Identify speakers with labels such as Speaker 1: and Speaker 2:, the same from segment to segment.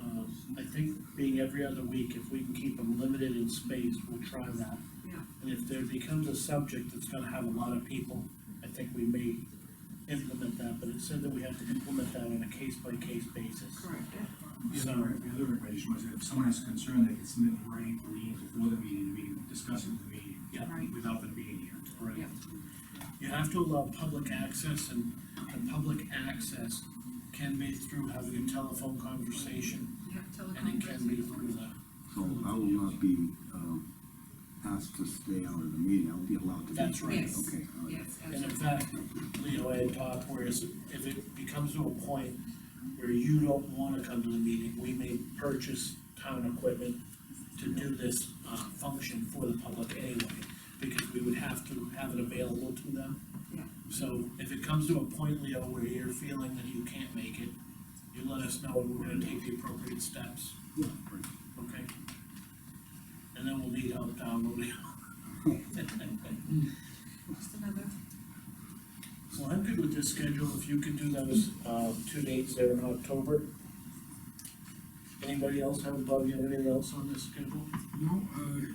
Speaker 1: Um, think being every other week, if we can keep them limited in space, we'll try that.
Speaker 2: Yeah.
Speaker 1: And if there becomes a subject that's gonna have a lot of people, I think we may implement that, but it said that we have to implement that on a case-by-case basis.
Speaker 2: Correct.
Speaker 3: The other, the other recommendation was that if someone has a concern, they can submit in writing to Lean before the meeting, we can discuss it with the meeting.
Speaker 1: Yeah.
Speaker 2: Right.
Speaker 3: Without them being here.
Speaker 1: Right.
Speaker 2: Yeah.
Speaker 1: You have to allow public access, and, and public access can be through having a telephone conversation,
Speaker 2: Yeah,
Speaker 1: and
Speaker 2: teleconference.
Speaker 1: it can be through the.
Speaker 4: So I will not be, um, asked to stay out of the meeting, I'll be allowed to be.
Speaker 1: That's right.
Speaker 2: Yes.
Speaker 4: Okay, all right.
Speaker 2: Yes,
Speaker 1: And in
Speaker 2: absolutely.
Speaker 1: fact, Leo had talked, whereas if it becomes to a point where you don't wanna come to the meeting, we may purchase town equipment to do this, uh, function for the public anyway, because we would have to have it available to them.
Speaker 2: Yeah.
Speaker 1: So if it comes to a point, Leo, where you're feeling that you can't make it, you let us know, and we're gonna take the appropriate steps,
Speaker 4: Yeah, right.
Speaker 1: okay? And then we'll need help down, Leo.
Speaker 2: Just another,
Speaker 1: Well, I'm good with this schedule, if you could do those, uh, two dates there in October. Anybody else have, Bob, you have anything else on this schedule?
Speaker 5: No, uh,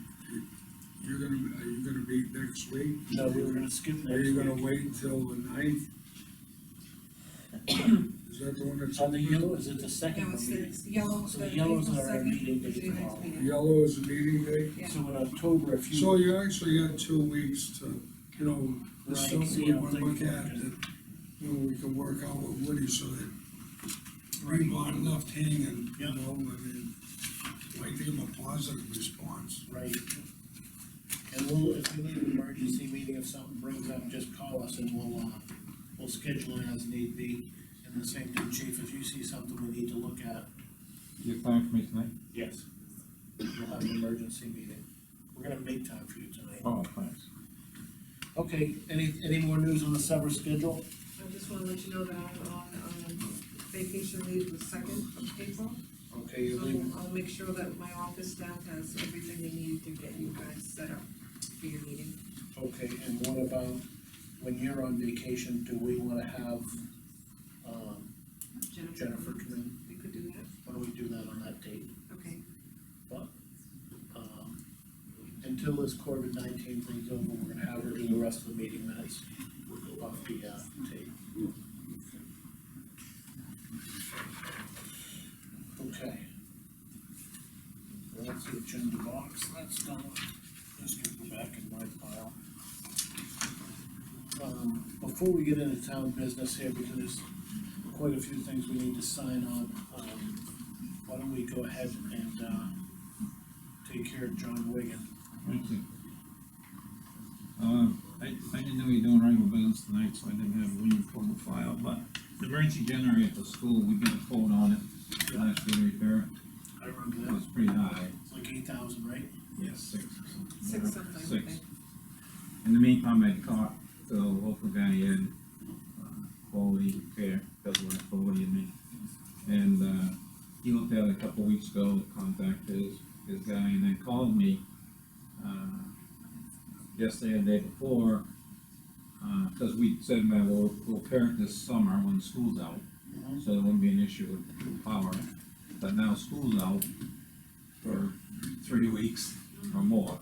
Speaker 5: you're gonna, are you gonna be next week?
Speaker 1: No, we were gonna skip next
Speaker 5: Are you gonna
Speaker 1: week.
Speaker 5: wait until the ninth? Is that the one that's?
Speaker 1: On the yellow, is it the second
Speaker 2: no,
Speaker 1: one
Speaker 2: it's the
Speaker 1: meeting?
Speaker 2: it's yellow.
Speaker 1: So
Speaker 2: the
Speaker 1: the yellows
Speaker 2: April
Speaker 1: are our
Speaker 2: 2nd,
Speaker 1: meeting
Speaker 2: is the
Speaker 1: dates.
Speaker 2: next meeting.
Speaker 5: Yellow is the meeting day?
Speaker 2: Yeah.
Speaker 1: So in October, if
Speaker 5: So
Speaker 1: you,
Speaker 5: you actually had two weeks to, you know,
Speaker 1: Right,
Speaker 5: there's stuff
Speaker 1: see
Speaker 5: we
Speaker 1: how
Speaker 5: wanna
Speaker 1: things
Speaker 5: look at
Speaker 1: work.
Speaker 5: that, you know, we can work out with Woody so that people aren't left hanging, you
Speaker 1: Yeah.
Speaker 5: know, I mean, like give them a positive response.
Speaker 1: right. And we'll, if we need an emergency meeting, if something breaks up, just call us and we'll, uh, we'll schedule it as need be. And the same thing, chief, if you see something we need to look at,
Speaker 6: Your plan for me tonight?
Speaker 1: Yes. We'll have an emergency meeting. We're gonna make time for you tonight.
Speaker 6: Oh, thanks.
Speaker 1: Okay, any, any more news on the summer schedule?
Speaker 2: I just wanna let you know that I'm on, um, vacation leave the second of April.
Speaker 1: Okay, you're
Speaker 2: So
Speaker 1: leaving,
Speaker 2: I'll make sure that my office staff has everything they need to get you guys set up for your meeting.
Speaker 1: okay, and what about when you're on vacation, do we wanna have, um, Jennifer come in?
Speaker 2: We could do that,
Speaker 1: Why don't we do that on that date?
Speaker 2: okay.
Speaker 1: Um, Until this COVID nineteen thing's over, we're gonna have her do the rest of the meeting minutes off the, uh, tape. Okay. Well, That's the agenda box, that's done, just gonna go back in my pile. Um, before we get into town business here, because there's quite a few things we need to sign on, um, why don't we go ahead and, uh, take care of John Wigan.
Speaker 6: Thank you. Um, I, I didn't know you were doing regular business tonight, so I didn't have William pull the file, but the emergency generator at the school, we got a quote on it, last year repair,
Speaker 1: I remember
Speaker 6: it
Speaker 1: that,
Speaker 6: was pretty high.
Speaker 1: it's like eight thousand, right?
Speaker 6: Yes, six or something.
Speaker 2: Six something, I
Speaker 6: Six.
Speaker 2: think.
Speaker 6: In the meantime, I talked to the local guy in, uh, quality repair, does work for Woody and me. And, uh, he looked at it a couple weeks ago, contacted his, his guy, and then called me, uh, yesterday and the day before, uh, cause we said, man, we'll, we'll pair it this summer when school's out, so there wouldn't be an issue with power. But now school's out for three weeks or more,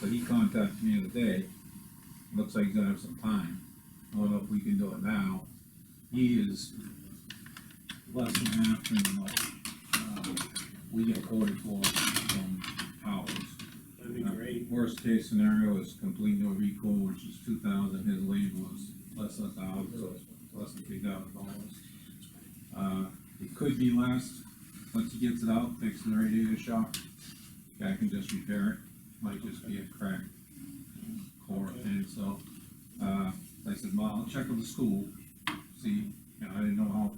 Speaker 6: so he contacted me the other day, looks like he's gonna have some time, I don't know if we can do it now. He is less than half than what, uh, we get quoted for from Powers.
Speaker 1: That'd be great.
Speaker 6: Worst case scenario is complete no recall, which is two thousand, his leave was less than a thousand, so it's less than three thousand dollars. Uh, it could be less, once he gets it out, fixing the radiator shock, guy can just repair it, might just be a crack core thing, so, uh, I said, well, I'll check with the school, see, you know, I didn't know how,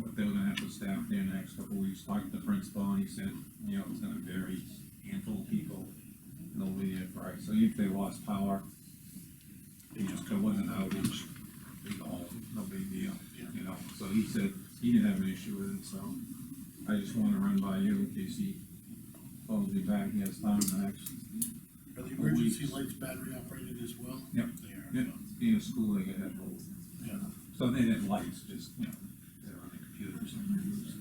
Speaker 6: what they were gonna have to staff there in the next couple of weeks, talked to the principal, and he said, you know, it's gonna vary, handful of people, and they'll be there for it, so if they lost power, you know, if it wasn't outage, they go home, no big deal, you know, so he said, he didn't have an issue with it, so I just wanna run by you in case he phones me back, he has time in the next
Speaker 1: Are the emergency lights battery operated as well?
Speaker 6: Yep.
Speaker 1: They
Speaker 6: Yeah,
Speaker 1: are,
Speaker 6: being a school, they could have both.
Speaker 1: yeah.
Speaker 6: So they didn't lights, just, you know, they're on the computers and they use